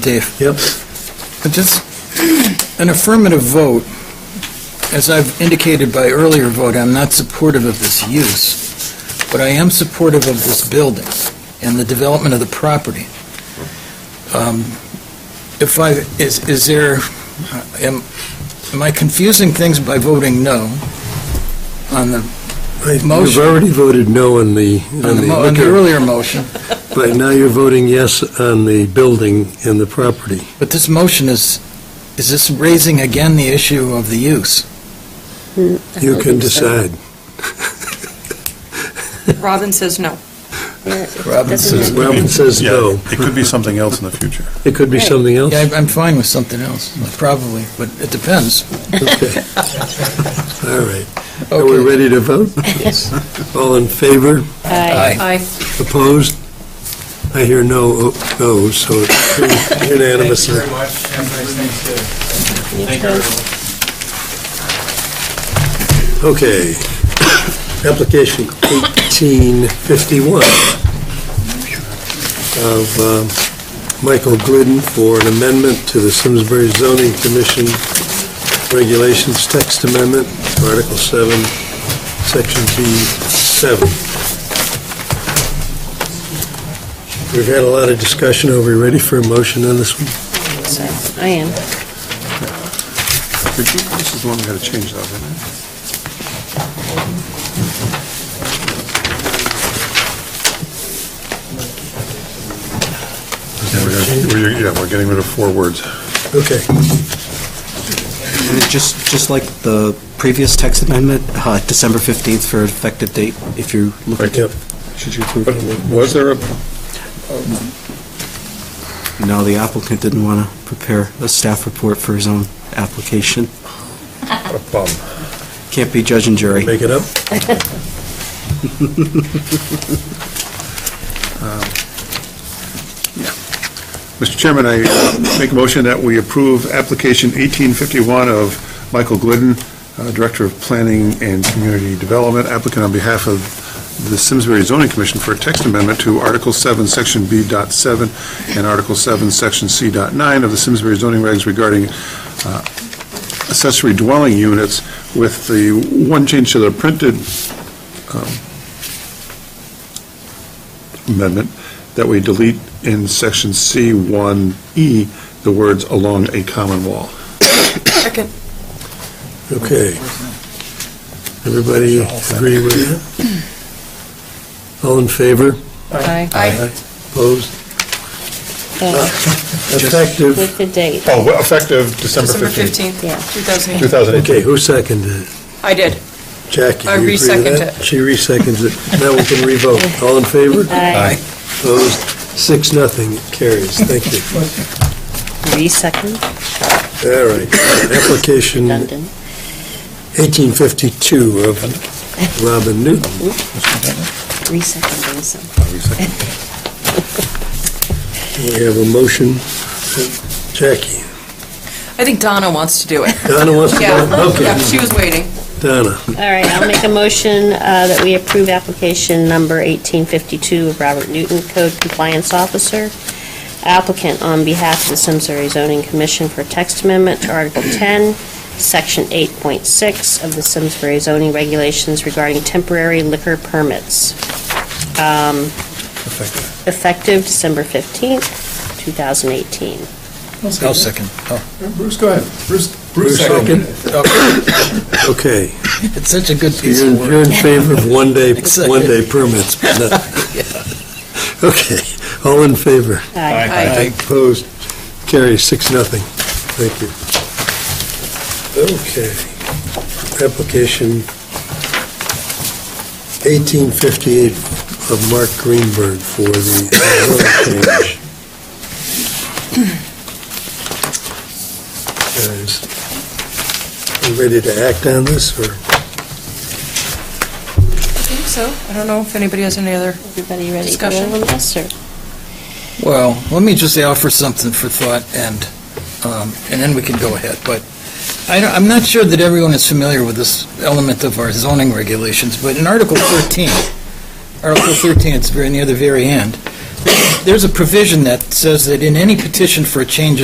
Dave, Yep. but just an affirmative vote, as I've indicated by earlier vote, I'm not supportive of this use, but I am supportive of this building and the development of the property. Um, If I, is, is there, uh, am, am I confusing things by voting no on the, You've Motion. already voted no on the, on on the mo- the on the liquor, earlier motion? but now you're voting yes on the building and the property. But this motion is, is this raising again the issue of the use? You can decide. Robin says no. Robin Doesn't says- it- Robin says Yeah, no. it could be something else in the future. It could be Right. something else. Yeah, I- I'm fine with something else, probably, but it depends. Okay. All right. Are we Okay. ready to vote? All in favor? Aye. Aye. Opposed? I hear no, oh, no, so it's unanimously. Okay. Application 1851 of um, Michael Glidden for an amendment to the Simsbury Zoning Commission Regulations Text Amendment, Article 7, Section B7. We've had a lot of discussion. Are we ready for a motion on this one? I am. This is the one we had to change, though, isn't Yeah, we're gonna- we're- Yeah, we're getting rid of four words. it? Okay. And it Just, just like the previous text amendment, uh, December 15th for effective date, if you're looking Right, yep. to, should you approve? it? Was there a, No, the applicant didn't want to prepare a staff report for his own application. a bum? Can't be judge and jury. Make it up? Mr. Chairman, I uh, make a motion that we approve application 1851 of Michael Glidden, uh, Director of Planning and Community Development, applicant on behalf of the Simsbury Zoning Commission for a text amendment to Article 7, Section B. dot 7, and Article 7, Section C. dot 9 of the Simsbury zoning regs regarding uh, accessory dwelling units with the one change to the printed um, amendment, that we delete in section C1E, the words "along a common wall." Second. Okay. Everybody agree with that? All in favor? Aye. Opposed? Effective, Effective- With the date. Oh, well, effective December December 15th, 15th, Yeah. 2008. 2018. okay, who seconded it? I did. Jackie, I you agree with reseconded that? She reseconds it. Now we can revote. All in favor? Aye. Opposed? Six, nothing, It carries. Thank you. Three second, All right. Application London. 1852 of Robin Newton. Three second, Wilson. We have a motion. Jackie, I think Donna wants to do it. Donna wants to Yeah, go? yeah, Okay, she was waiting. Donna. All right, I'll make a motion uh, that we approve application number 1852 of Robert Newton, Code Compliance Officer, applicant on behalf of the Simsbury Zoning Commission for text amendment to Article 10, Section 8.6 of the Simsbury zoning regulations regarding temporary liquor permits. Um, Effective December 15th, 2018. I'll second. Oh, Bruce, go ahead. Bruce, Bruce second. Okay, It's such a good piece you're of in- you're work. in favor of one-day, Excited. one-day permits. but not- Okay, all in favor? Aye. Aye. Opposed? Carry six, nothing. Thank you. Okay. Application 1858 of Mark Greenberg for the zone change. Guys, you ready to act on this, or? I think so. I don't know if anybody has any other, Everybody ready to go Discussion. on this, or? Well, let me just offer something for thought, and, um, and then we can go ahead. But I don't- I'm not sure that everyone is familiar with this element of our zoning regulations, but in Article 13, Article 13, it's very near the very end, there's a provision that says that in any petition for a change